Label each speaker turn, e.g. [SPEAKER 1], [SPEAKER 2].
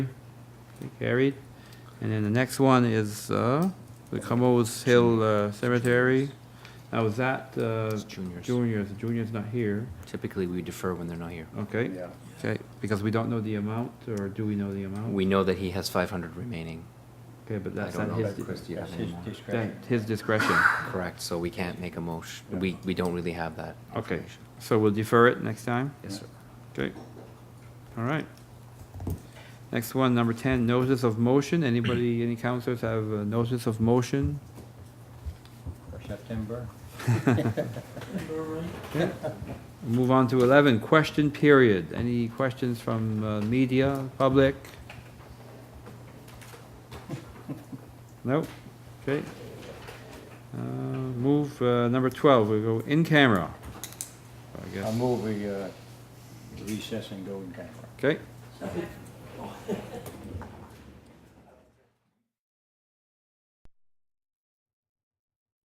[SPEAKER 1] Okay, carried. And then the next one is, uh, the Camo's Hill uh, Cemetery. Now, is that, uh,
[SPEAKER 2] It's juniors.
[SPEAKER 1] juniors, junior's not here,
[SPEAKER 2] Typically, we defer when they're not here.
[SPEAKER 1] okay?
[SPEAKER 3] Yeah.
[SPEAKER 1] Okay, because we don't know the amount, or do we know the amount?
[SPEAKER 2] We know that he has five hundred remaining.
[SPEAKER 1] Okay, but
[SPEAKER 2] I
[SPEAKER 1] that's
[SPEAKER 2] don't
[SPEAKER 1] at
[SPEAKER 2] know
[SPEAKER 1] his,
[SPEAKER 2] that Chris, do you have
[SPEAKER 3] That's
[SPEAKER 2] any
[SPEAKER 3] his
[SPEAKER 2] more?
[SPEAKER 3] discretion.
[SPEAKER 1] that- his discretion.
[SPEAKER 2] Correct, so we can't make a motion, we, we don't really have that
[SPEAKER 1] Okay,
[SPEAKER 2] information.
[SPEAKER 1] so we'll defer it next time?
[SPEAKER 2] Yes, sir.
[SPEAKER 1] Okay, all right. Next one, number ten, notice of motion. Anybody, any counselors have a notice of motion?
[SPEAKER 3] For September.
[SPEAKER 1] Move on to eleven, question period. Any questions from uh, media, public? Nope, okay. Uh, Move, uh, number twelve, we go in camera. I
[SPEAKER 3] I
[SPEAKER 1] guess,
[SPEAKER 3] move we uh, recess and go in camera.
[SPEAKER 1] okay.